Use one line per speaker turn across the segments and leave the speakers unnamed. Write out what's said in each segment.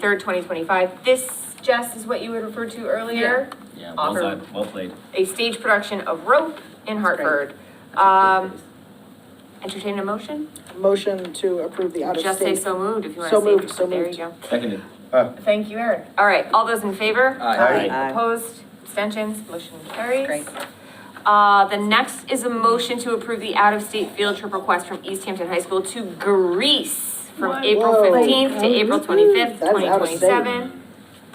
third, twenty twenty-five. This, Jess, is what you had referred to earlier,
Yeah, well
Offer.
done, well played.
a stage production of Rope in
That's great.
Hartford. Um, entertain a motion?
Motion to approve the
Just say
out-of-state.
so moved if you want
So
to say.
moved, so
There you
moved.
go.
Seconded.
Thank you, Erin. All right, all those in favor?
Aye.
Aye.
Opposed, abstentions, motion carries.
Great.
Uh, the next is a motion to approve the out-of-state field trip request from East Hampton High School to Greece from
What?
April
Whoa.
fifteenth to April twenty-fifth,
That's
twenty
out of state.
twenty-seven.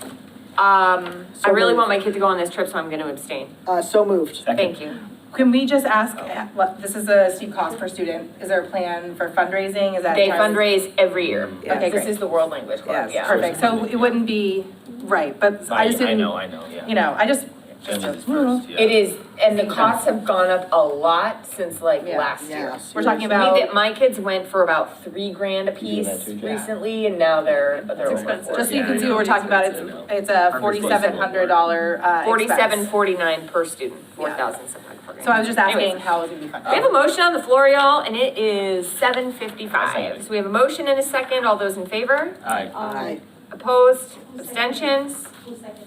Um, I
So
really
moved.
want my kid to go on this trip, so I'm gonna abstain.
Uh, so moved.
Second.
Thank you.
Can we just ask, well, this is a steep cost per student, is there a plan for fundraising, is that?
They
Mm-hmm.
fundraise every year.
Yes.
Okay, This is the world language club,
Yes,
yeah.
perfect, so it wouldn't be, right, but I just
I
didn't,
know, I know, yeah.
you know, I just,
Jen is
I don't know.
first, yeah.
It is, and the costs have gone up a lot since like
Yeah,
last year.
Yeah,
we're talking
I mean,
about,
that my kids went for about three grand a
You
piece
do that too, Jen?
recently, and now they're, they're over
expensive.
four.
just so you
Yeah, I
can see
know,
what we're talking about, it's,
expensive,
it's a
Hundred plus
forty-seven hundred dollar, uh, expense.
Forty-seven, forty-nine per student, four
Yeah.
thousand seven hundred per
So I was just um, asking
Anyways.
how it would be funded.
We have a motion on the floor, y'all, and it is seven
Second.
fifty-five. So we have a motion and a second, all those in favor?
Aye.
Aye.
Opposed,
Who seconded?
abstentions?
Who seconded?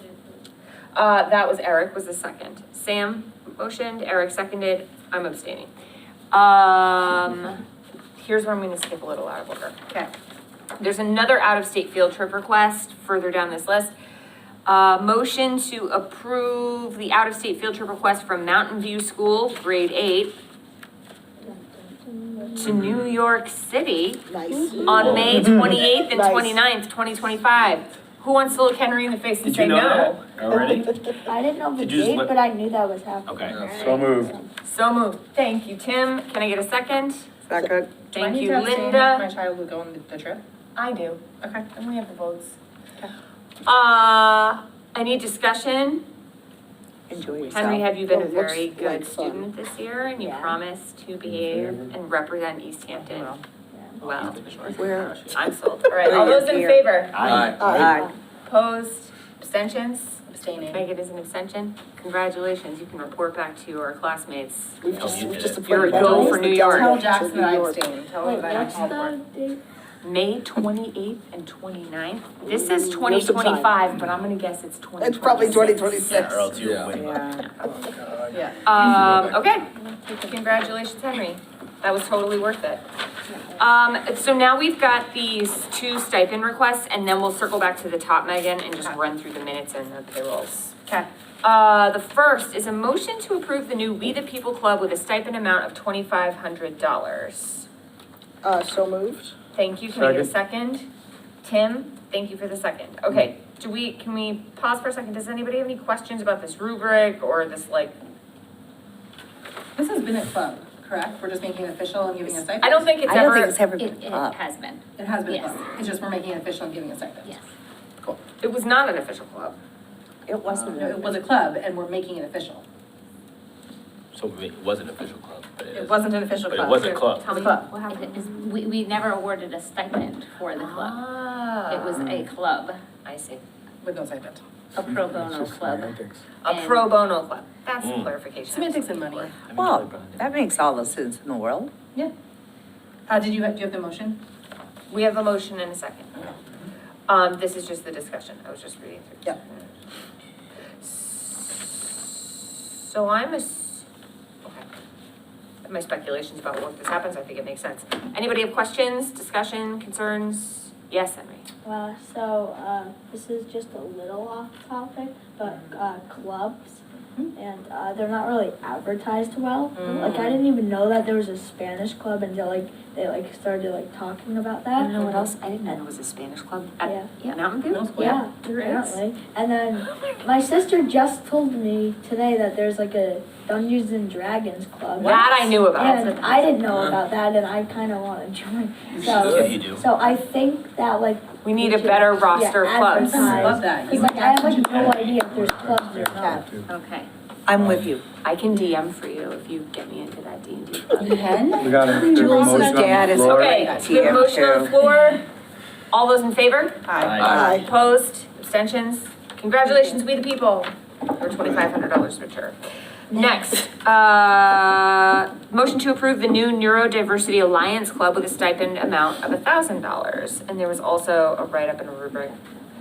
Uh, that was Eric was the second. Sam motioned, Eric seconded, I'm abstaining. Um, here's where I'm gonna skip a little out of order.
Okay.
There's another out-of-state field trip request further down this list. Uh, motion to approve the out-of-state field trip request from Mountain View School, grade eight, to New York City
Nice.
on May twenty-eighth and
Nice.
29th, twenty twenty-five. Who wants to look Henry in the face and
Did
say
you
no?
know that already?
I didn't know the
Did you just
date,
let-
but I knew that was happening.
Okay.
So moved.
So moved. Thank you, Tim. Can I get a second?
Is that good?
Do I
Thank
need
you,
to abstain if
Linda.
My child would go on the- the trip,
I do.
okay.
And we have the votes. Uh, any discussion?
Enjoy yourself.
Henry, have you been a
It looks
very
like
good
fun.
student this year and you
Yeah.
promise to behave and represent East Hampton well?
Where-
I'm sold. All right, all those in favor?
Aye.
Aye.
Opposed? Abstentions?
abstaining.
Megan is an abstention. Congratulations, you can report back to your classmates.
We've just, we've just.
You're a
appointed
go
Dennis
for
to
New
go
York.
Tell
to
Jackson that I
New York.
abstain, tell
Wait,
him that I
what's
have homework.
the date?
May twenty-eighth and 29th. This
Ooh,
is
there's some
twenty
time.
twenty-five, but I'm gonna guess it's twenty twenty-six.
It's probably twenty twenty-six.
Yeah, or else you're
Yeah.
way behind.
Yeah. Yeah.
Um, okay, congratulations, Henry. That was totally worth it. Um, so now we've got these two stipend requests, and then we'll circle back to the top, Megan, and just run through the minutes and the payrolls.
Okay.
Uh, the first is a motion to approve the new We the People Club with a stipend amount of twenty-five hundred dollars.
Uh, so moved.
Thank you, can I get a second? Tim, thank you for the second. Okay, do we, can we pause for a second? Does anybody have any questions about this rubric or this like
This has been a club, correct? We're just making it official and giving a stipend?
I don't think it's ever.
ever
It, it has been,
It has been a
Yes.
club. It's just we're making it official and giving a stipend.
yes.
It was not an official club.
It
No, Uh, it was a club and we're making it official.
So we- it was an official club, but it
It
is.
wasn't an official
But
club.
it was a club.
Tell me
Club.
what
It
happened.
is- We, we never awarded a stipend for the club.
Ah.
It was a club,
I see.
With no stipend.
a pro bono club.
A
And-
pro bono club. That's
Mm.
clarification.
Semantics and money.
I mean,
Well,
probably behind it.
that makes all the sense in the world.
Uh, did you, have- do you have the motion?
We have a motion and a second. Um, this is just the discussion. I was just reading through.
Yep.
So I'm a, okay. My speculations about what this happens, I think it makes sense. Anybody have questions, discussion, concerns? Yes, Henry?
Well, so, uh, this is just a little off topic, but, uh, clubs,
Mm-hmm.
and, uh, they're not really advertised well.
Mm.
Like, I didn't even know that there was a Spanish club until, like, they, like, started, like, talking about that.
know what else. I didn't know there was a Spanish club
Yeah,
at Mountain View.
yeah, apparently. And
Oh
then, my sister just told me today that there's, like, a Dungeons and Dragons club.
That I knew about.
And I didn't know about that, and I kind of want to join.
Yeah,
So,
you do.
so I think that like,
We need a better
Yeah,
roster of clubs.
advertise.
Love that.
because like I have like no idea if there's clubs or not.
Okay.
I'm with you.
I can DM for you if you get me into that D and D club.
You can?
We got a, there's a
Julie's
motion on the
dad is-
floor.
Okay, we have a motion on the floor. All those in favor?
Aye.
Aye.
Opposed? Abstentions? Congratulations, we the people. Or twenty-five hundred dollars return. Next, uh, motion to approve the new Neurodiversity Alliance Club with a stipend amount of thousand dollars. And there was also a write-up and a rubric